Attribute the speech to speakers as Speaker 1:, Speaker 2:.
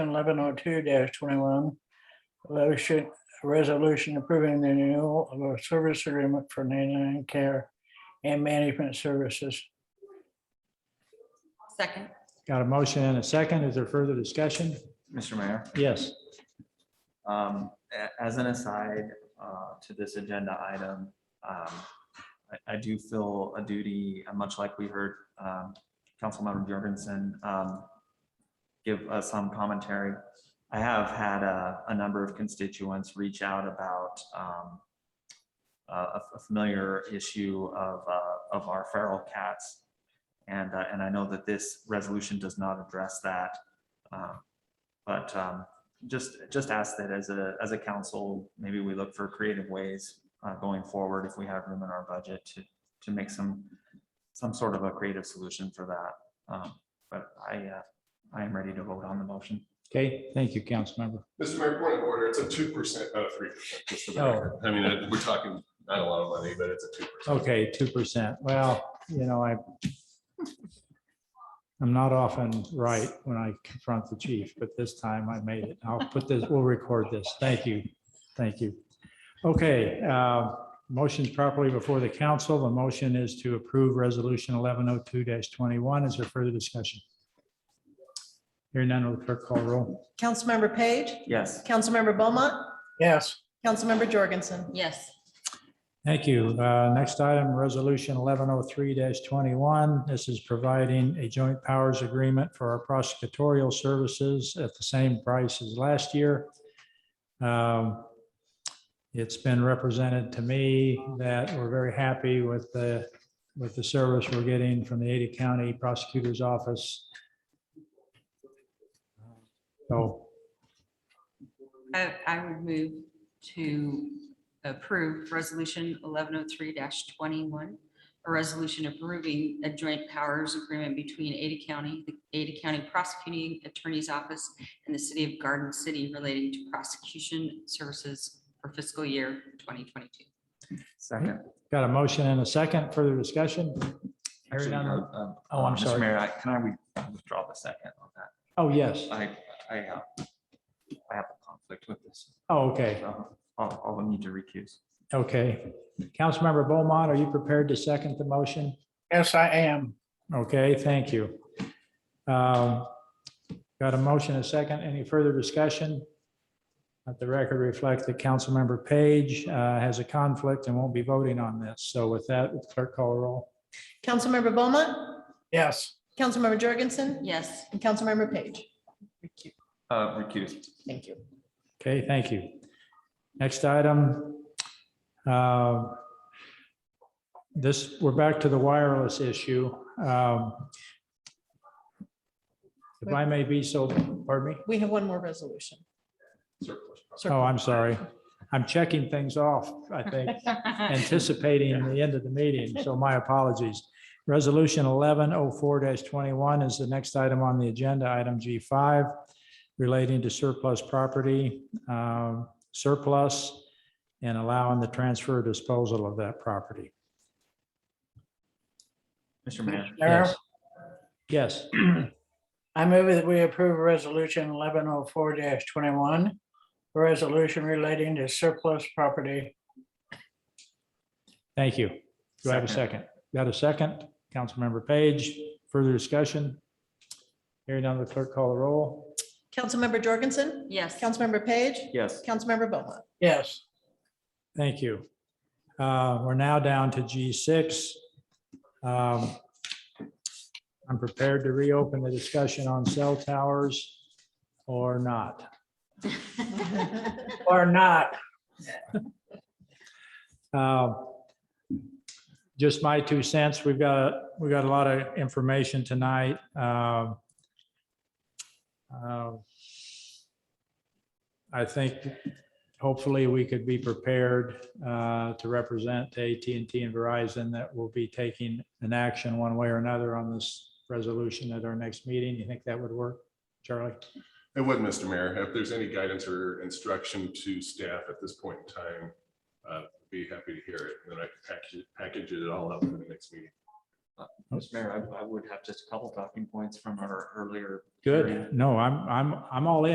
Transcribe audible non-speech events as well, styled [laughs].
Speaker 1: eleven oh two twenty-one. Resolution, resolution approving the renewal of a service agreement for ninety-nine care and management services.
Speaker 2: Second.
Speaker 3: Got a motion and a second. Is there further discussion?
Speaker 4: Mr. Mayor,
Speaker 3: Yes.
Speaker 4: um, a- as an aside, uh, to this agenda item, um, I, I do feel a duty, uh, much like we heard, um, Councilmember Jorgensen, um, give us some commentary. I have had a, a number of constituents reach out about, um, a, a familiar issue of, uh, of our feral cats. And, uh, and I know that this resolution does not address that. Um, But, um, just, just ask that as a, as a council, maybe we look for creative ways uh, going forward if we have room in our budget to, to make some, some sort of a creative solution for that. Um, But I, uh, I am ready to vote on the motion.
Speaker 3: Okay, thank you, Councilmember.
Speaker 5: Mr. Mayor, point of order, it's a two percent, not a three percent, just for the
Speaker 3: Oh.
Speaker 5: record. I mean, I- we're talking not a lot of money, but it's a two percent.
Speaker 3: Okay, two percent. Well, you know, I I'm not often right when I confront the chief, but this time I made it. I'll put this, we'll record this. Thank you. Thank you. Okay, uh, motion's properly before the council. The motion is to approve Resolution eleven oh two twenty-one. Is there further discussion? Hearing none, will the clerk call roll?
Speaker 6: Councilmember Page,
Speaker 4: Yes,
Speaker 6: Councilmember Beaumont,
Speaker 1: Yes,
Speaker 6: Councilmember Jorgensen.
Speaker 2: Yes.
Speaker 3: Thank you. Uh, Next item, Resolution 1103-21. This is providing a joint powers agreement for our prosecutorial services at the same price as last year. Um, It's been represented to me that we're very happy with the, with the service we're getting from the Ada County Prosecutor's Office. So
Speaker 2: I, I would move to approve resolution eleven oh three twenty-one. A resolution approving a joint powers agreement between Ada County, the Ada County Prosecuting Attorney's Office and the City of Garden City relating to prosecution services for fiscal year twenty twenty-two.
Speaker 4: second.
Speaker 3: got a motion and a second. Further discussion? Hearing
Speaker 4: Actually,
Speaker 3: none.
Speaker 4: uh,
Speaker 3: will-
Speaker 4: uh,
Speaker 3: Oh, I'm
Speaker 4: Mr.
Speaker 3: sorry.
Speaker 4: Mayor, I- can I re- withdraw the second on that?
Speaker 3: Oh, yes.
Speaker 4: I, I, uh, I have a conflict with this.
Speaker 3: Oh, okay.
Speaker 4: So I'll, I'll need to recuse.
Speaker 3: Okay. Councilmember Beaumont, are you prepared to second the motion?
Speaker 1: yes, I am.
Speaker 3: Okay, thank you. Um, Got a motion, a second. Any further discussion? Let the record reflect that Councilmember Page uh, has a conflict and won't be voting on this. So with that, would clerk call a roll.
Speaker 6: Councilmember Beaumont,
Speaker 1: Yes,
Speaker 6: Councilmember Jorgensen,
Speaker 2: Yes.
Speaker 6: and Councilmember Page.
Speaker 4: Uh, recuse.
Speaker 6: Thank you.
Speaker 3: Okay, thank you. Next item. uh, This, we're back to the wireless issue. Um, If I may be so, pardon me?
Speaker 6: We have one more resolution.
Speaker 5: Surplus.
Speaker 3: Oh, I'm sorry. I'm checking things off, I think, anticipating the end of the meeting, so my apologies. Resolution eleven oh four twenty-one is the next item on the agenda, item G five, relating to surplus property, um, surplus, and allowing the transfer or disposal of that property.
Speaker 4: Mr. Mayor.
Speaker 1: Mayor,
Speaker 3: Yes. Yes,
Speaker 1: I move that we approve resolution eleven oh four twenty-one. a Resolution relating to surplus property.
Speaker 3: thank you. Do I have a second? Got a second? Councilmember Page, further discussion? Hearing none, the clerk call the roll.
Speaker 6: Councilmember Jorgensen,
Speaker 2: Yes.
Speaker 6: Councilmember Page,
Speaker 4: Yes,
Speaker 6: Councilmember Beaumont.
Speaker 1: Yes,
Speaker 3: Thank you. Uh, We're now down to G6. Um, I'm prepared to reopen the discussion on cell towers or not.
Speaker 6: [laughs]
Speaker 1: or not.
Speaker 3: Uh, Just my two cents. We've got, we got a lot of information tonight. Um, uh, I think hopefully we could be prepared uh, to represent to AT&T and Verizon that will be taking an action one way or another on this resolution at our next meeting. You think that would work, Charlie?
Speaker 5: It would, Mr. Mayor, if there's any guidance or instruction to staff at this point in time, uh, be happy to hear it, and then I can package, package it all up for the next meeting.
Speaker 4: Mr. Mayor, I, I would have just a couple talking points from our earlier. hearing.
Speaker 3: Good. No, I'm, I'm, I'm all in.